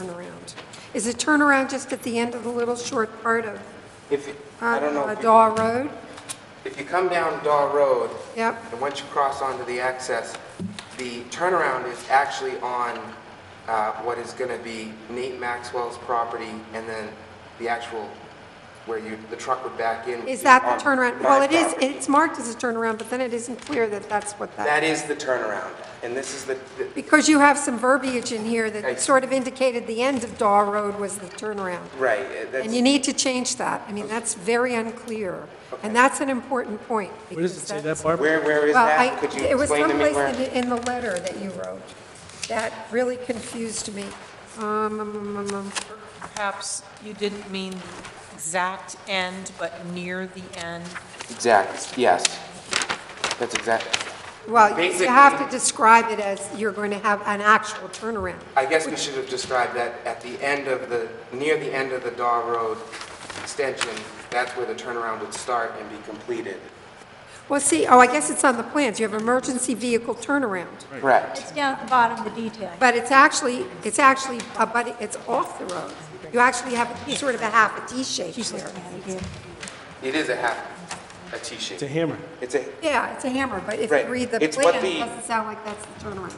turnaround. Is it turnaround just at the end of the little short part of If, you- I don't know, uh, if you- Daw Road? if you come down Daw Road, Yep, and once you cross onto the access, the turnaround is actually on uh, what is going to be Nate Maxwell's property, and then the actual, where you, the truck would back in. would is be that the on turnaround? Um, my Well, it is, property. it's marked as a turnaround, but then it isn't clear that that's what that, That is the turnaround, and this is the, the- because you have some verbiage in here that Right. sort of indicated the end of Daw Road was the turnaround. right, uh, that's, And you need to change that. I mean, that's very unclear. And that's an important point. What does it because say, that that's- Barbara? where, where is Well, I, that? Could you it was explain to me someplace where? in, in the letter that you wrote that really confused me. Um, um, um, um, Perhaps you didn't mean exact end, but near the end. Exact, yes. That's exact, Well, you Basically- have to describe it as you're going to have an actual turnaround. I guess we should have described that at the end of the, near the end of the Daw Road extension, that's where the turnaround would start and be completed. Well, see, oh, I guess it's on the plans. You have emergency vehicle turnaround. Correct. It's down at the bottom, the detail. But it's actually, it's actually, uh, but it's off the road. You actually have sort of a half a D shape there. It is a half, a It's a T-shape. hammer. It's a, Yeah, it's a hammer, but if you Right. read the It's what plan, the- it doesn't sound like that's the turnaround.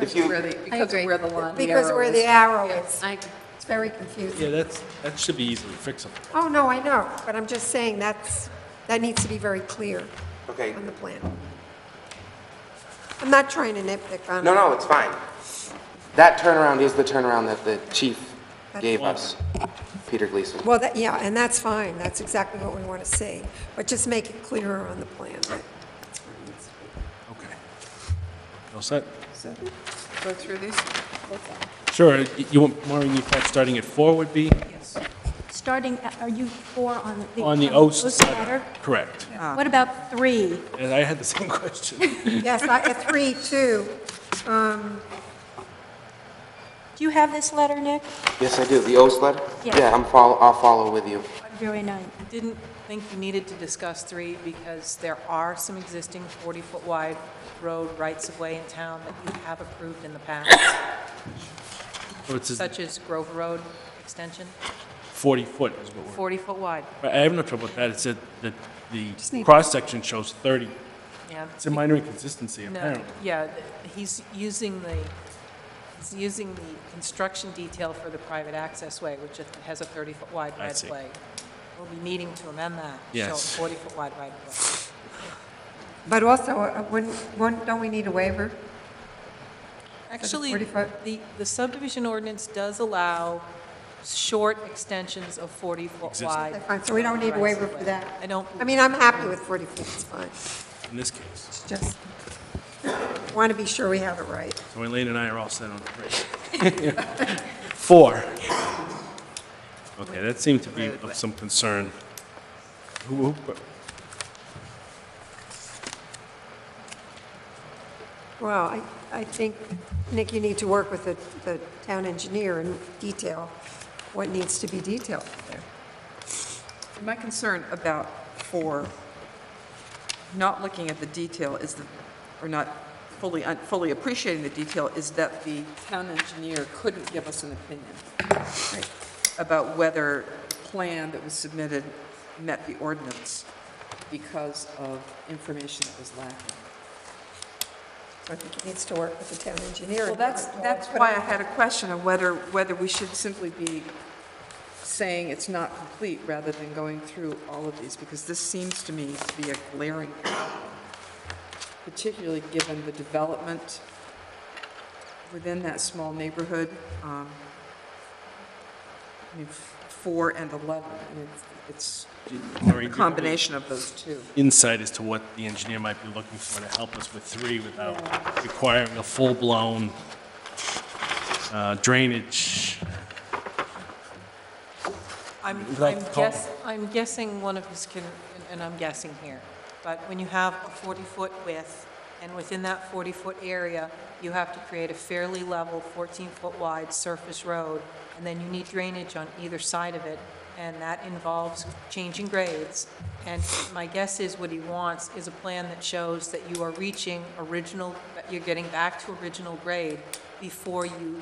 if you, Because of where the line, the Because arrow where the is. arrow is, I- it's very confusing. Yeah, that's, that should be easily fixable. Oh, no, I know, but I'm just saying that's, that needs to be very clear okay, on the plan. I'm not trying to nitpick on it. no, no, it's fine. That turnaround is the turnaround that the chief gave us, Peter Gleason. Well, that, yeah, and that's fine, that's exactly what we want to see, but just make it clearer on the plan. Okay. All set? Go through these. Sure, y- you want, Maureen, you thought starting at four would be Starting, at- are you four on the? on the Oast Oast side? letter? Correct. What about three? And I had the same question. Yes, I, at three, two, Do you have this letter, Nick? Yes, I do, the O's letter? Yeah. Yeah, I'm follow, I'll follow with you. February 9th. I Didn't think you needed to discuss three because there are some existing 40-foot wide road rights-of-way in town that you have approved in the past, So It's a such as Grove Road extension, 40-foot is what we're, 40-foot wide. I have no trouble with that. It's that the, the cross-section shows 30. Yeah. It's a minor inconsistency, No, apparently. yeah, th- he's using the, he's using the construction detail for the private access way, which it has a 30-foot wide I see. right-of-way. We'll be needing to amend that. Yes. So 40-foot wide right-of-way. but also, uh, wouldn't, wouldn't- don't we need a waiver? Actually, 40-foot? the, the subdivision ordinance does allow short extensions of 40-foot Okay, wide. fine, So we don't need a waiver for that? I don't, I mean, I'm happy with 40 feet, it's fine. In this case. It's just, want to be sure we have it right. So Elaine and I are all set on three. Four. Okay, that seemed to be of some concern. Who- who- Well, I, I think, Nick, you need to work with the, the town engineer and detail what needs to be detailed there. My concern about four, not looking at the detail is the, or not fully, un- fully appreciating the detail, is that the town engineer couldn't give us an opinion about whether the plan that was submitted met the ordinance because of information that was lacking. I think it needs to work with the town engineer. Well, that's, that's why I had a question of whether, whether we should simply be saying it's not complete rather than going through all of these, because this seems to me to be a glaring problem, particularly given the development within that small neighborhood. um, I mean, f- four and 11, I mean, it's Maureen, do you have a any combination of those two. Insight as to what the engineer might be looking for to help us with three without requiring a full-blown uh, drainage. I'm, Without I'm call- guess, I'm guessing one of his, con- and- and I'm guessing here, but when you have a 40-foot width, and within that 40-foot area, you have to create a fairly level 14-foot wide surface road, and then you need drainage on either side of it, and that involves changing grades. And my guess is what he wants is a plan that shows that you are reaching original, that you're getting back to original grade, before you